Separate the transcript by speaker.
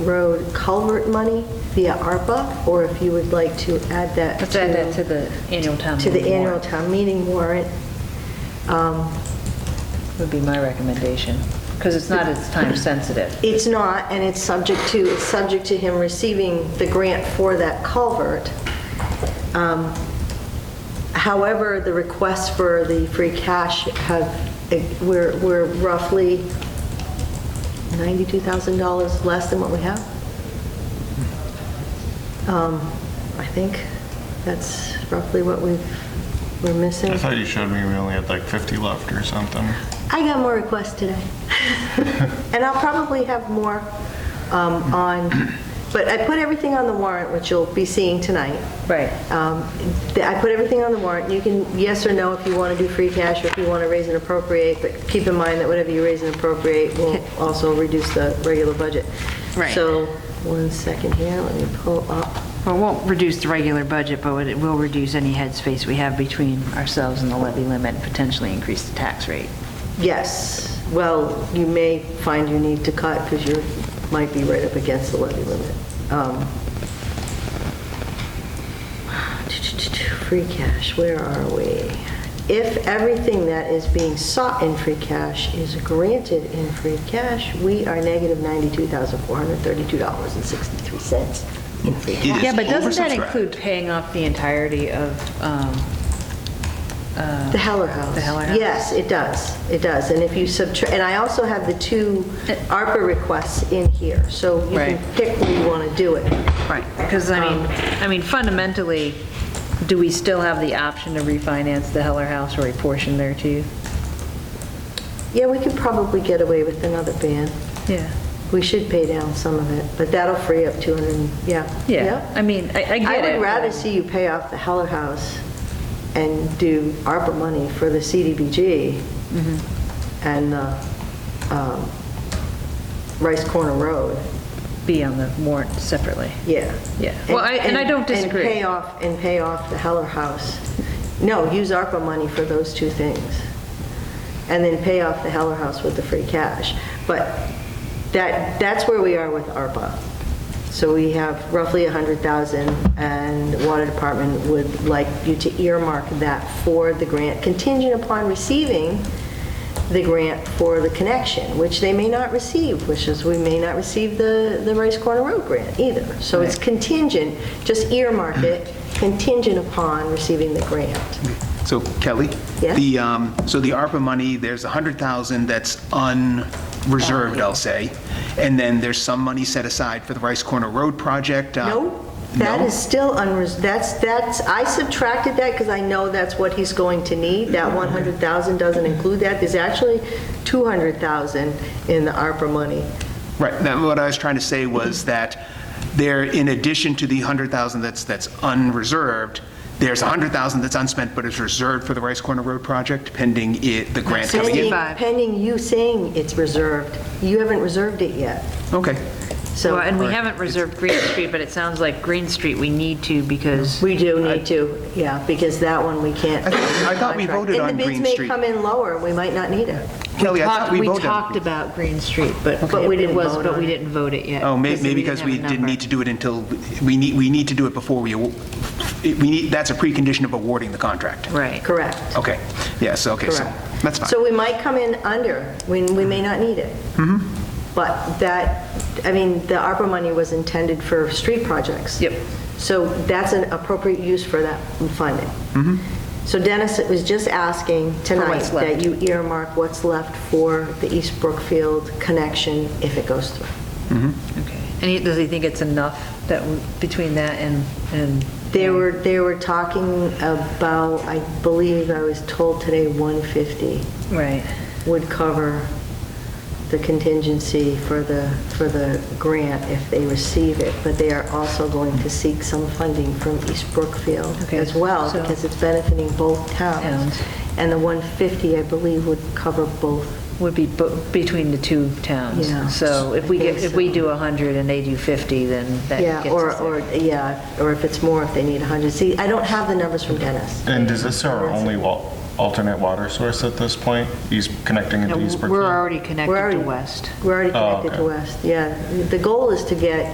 Speaker 1: Road culvert money via ARPA, or if you would like to add that
Speaker 2: Let's add that to the annual town
Speaker 1: to the
Speaker 2: meeting
Speaker 1: annual
Speaker 2: warrant.
Speaker 1: town meeting warrant. Um,
Speaker 2: Would be my recommendation, because it's not as time sensitive.
Speaker 1: It's not, and it's subject to, it's subject to him receiving the grant for that culvert. Um, However, the requests for the free cash have, eh, we're we're roughly $92,000 less than what we have. Um, I think that's roughly what we've, we're missing.
Speaker 3: I thought you showed me we only had like 50 left or something.
Speaker 1: I got more requests today. And I'll probably have more um, on, but I put everything on the warrant, which you'll be seeing tonight.
Speaker 2: Right.
Speaker 1: Um, th- I put everything on the warrant. You can, yes or no, if you want to do free cash, or if you want to raise and appropriate, but keep in mind that whatever you raise and appropriate will also reduce the regular budget.
Speaker 4: Right.
Speaker 1: So, one second here, let me pull up.
Speaker 4: Well, it won't reduce the regular budget, but it will reduce any headspace we have between ourselves and the levy limit, and potentially increase the tax rate.
Speaker 1: Yes, well, you may find you need to cut because you might be right up against the levy limit. Um, Free cash, where are we? If everything that is being sought in free cash is granted in free cash, we are negative $92,432.63 in free cash.
Speaker 2: Yeah, but doesn't that include paying off the entirety of, um, uh,
Speaker 1: The Heller House.
Speaker 2: The Heller House.
Speaker 1: Yes, it does, it does. And if you subtract, and I also have the two ARPA requests in here, so you can
Speaker 2: Right.
Speaker 1: pick where you want to do it.
Speaker 2: right, because I mean, I mean fundamentally, do we still have the option to refinance the Heller House or a portion there too?
Speaker 1: Yeah, we could probably get away with another ban.
Speaker 2: Yeah.
Speaker 1: We should pay down some of it, but that'll free up 200, and- yeah.
Speaker 2: Yeah, I mean, I I get it.
Speaker 1: I would
Speaker 2: but-
Speaker 1: rather see you pay off the Heller House and do ARPA money for the CDBG
Speaker 2: Mm-hmm.
Speaker 1: and uh, um, Rice Corner Road.
Speaker 2: Be on the warrant separately.
Speaker 1: Yeah.
Speaker 2: Yeah. Well, I- and I don't disagree.
Speaker 1: And pay off, and pay off the Heller House. No, use ARPA money for those two things. And then pay off the Heller House with the free cash. But that, that's where we are with ARPA. So we have roughly 100,000, and the Water Department would like you to earmark that for the grant, contingent upon receiving the grant for the connection, which they may not receive, which is, we may not receive the, the Rice Corner Road grant either. So it's contingent, just earmark it, contingent upon receiving the grant.
Speaker 5: So Kelly?
Speaker 1: Yeah?
Speaker 5: The, um, so the ARPA money, there's 100,000 that's unreserved,
Speaker 1: Uh-huh.
Speaker 5: I'll say, and then there's some money set aside for the Rice Corner Road project. uh,
Speaker 1: No, that
Speaker 5: no?
Speaker 1: is still unres, that's, that's, I subtracted that because I know that's what he's going to need. That 100,000 doesn't include that. There's actually 200,000 in the ARPA money.
Speaker 5: Right, that, what I was trying to say
Speaker 1: Mm-hmm.
Speaker 5: was that there, in addition to the 100,000 that's, that's unreserved, there's 100,000 that's unspent but is reserved for the Rice Corner Road project pending it, the grant coming
Speaker 1: Pending,
Speaker 5: in.
Speaker 4: 65.
Speaker 1: pending you saying it's reserved. You haven't reserved it yet,
Speaker 5: Okay,
Speaker 1: so.
Speaker 4: Well, and we haven't reserved Green Street, but it sounds like Green Street we need to because,
Speaker 1: We do need to, yeah, because that one we can't.
Speaker 5: I thought- I thought we voted on Green
Speaker 1: And the bids may
Speaker 5: Street.
Speaker 1: come in lower, we might not need it.
Speaker 5: Kelly, I thought
Speaker 4: Talked-
Speaker 5: we
Speaker 4: we
Speaker 5: voted.
Speaker 4: talked about Green Street, but
Speaker 1: But we
Speaker 4: it
Speaker 1: didn't
Speaker 4: was,
Speaker 1: vote
Speaker 4: but
Speaker 1: on
Speaker 4: we
Speaker 1: it.
Speaker 4: didn't vote it yet.
Speaker 5: Oh, may- maybe because
Speaker 4: have
Speaker 5: we
Speaker 4: a
Speaker 5: didn't
Speaker 4: number.
Speaker 5: need to do it until, we need, we need to do it before we, aw- we need, that's a precondition of awarding the contract.
Speaker 4: Right.
Speaker 1: Correct,
Speaker 5: Okay, yes, Oh, okay, so,
Speaker 1: correct.
Speaker 5: that's fine.
Speaker 1: So we might come in under, we, we may not need it.
Speaker 5: Mm-hmm.
Speaker 1: But that, I mean, the ARPA money was intended for street projects.
Speaker 2: Yep.
Speaker 1: So that's an appropriate use for that funding.
Speaker 5: Mm-hmm.
Speaker 1: So Dennis was just asking tonight
Speaker 2: what's left.
Speaker 1: that you earmark what's left for the East Brookfield connection if it goes through.
Speaker 2: Okay. And he- does he think it's enough that, w- between that and, and?
Speaker 1: They were, they were talking about, I believe I was told today, 150
Speaker 2: Right.
Speaker 1: would cover the contingency for the, for the grant if they receive it, but they are also going to seek some funding from East Brookfield
Speaker 2: Okay,
Speaker 1: as well,
Speaker 2: so-
Speaker 1: because it's benefiting both towns.
Speaker 2: Towns.
Speaker 1: And the 150, I believe, would cover both.
Speaker 2: Would be bo- between the two towns.
Speaker 1: Yeah.
Speaker 2: So if we
Speaker 1: I think
Speaker 2: get, if we
Speaker 1: so.
Speaker 2: do 100 and they do 50, then that
Speaker 1: Yeah,
Speaker 2: gets
Speaker 1: or,
Speaker 2: us there.
Speaker 1: or, yeah, or if it's more, if they need 100. See, I don't have the numbers from Dennis.
Speaker 3: And is this our only wa- alternate water source at this point? He's connecting into
Speaker 4: No,
Speaker 3: East Brookfield?
Speaker 4: We're already
Speaker 1: We're
Speaker 4: connected
Speaker 1: already-
Speaker 4: to West.
Speaker 1: We're already
Speaker 3: Oh,
Speaker 1: connected
Speaker 3: okay.
Speaker 1: to West, yeah. The goal is to get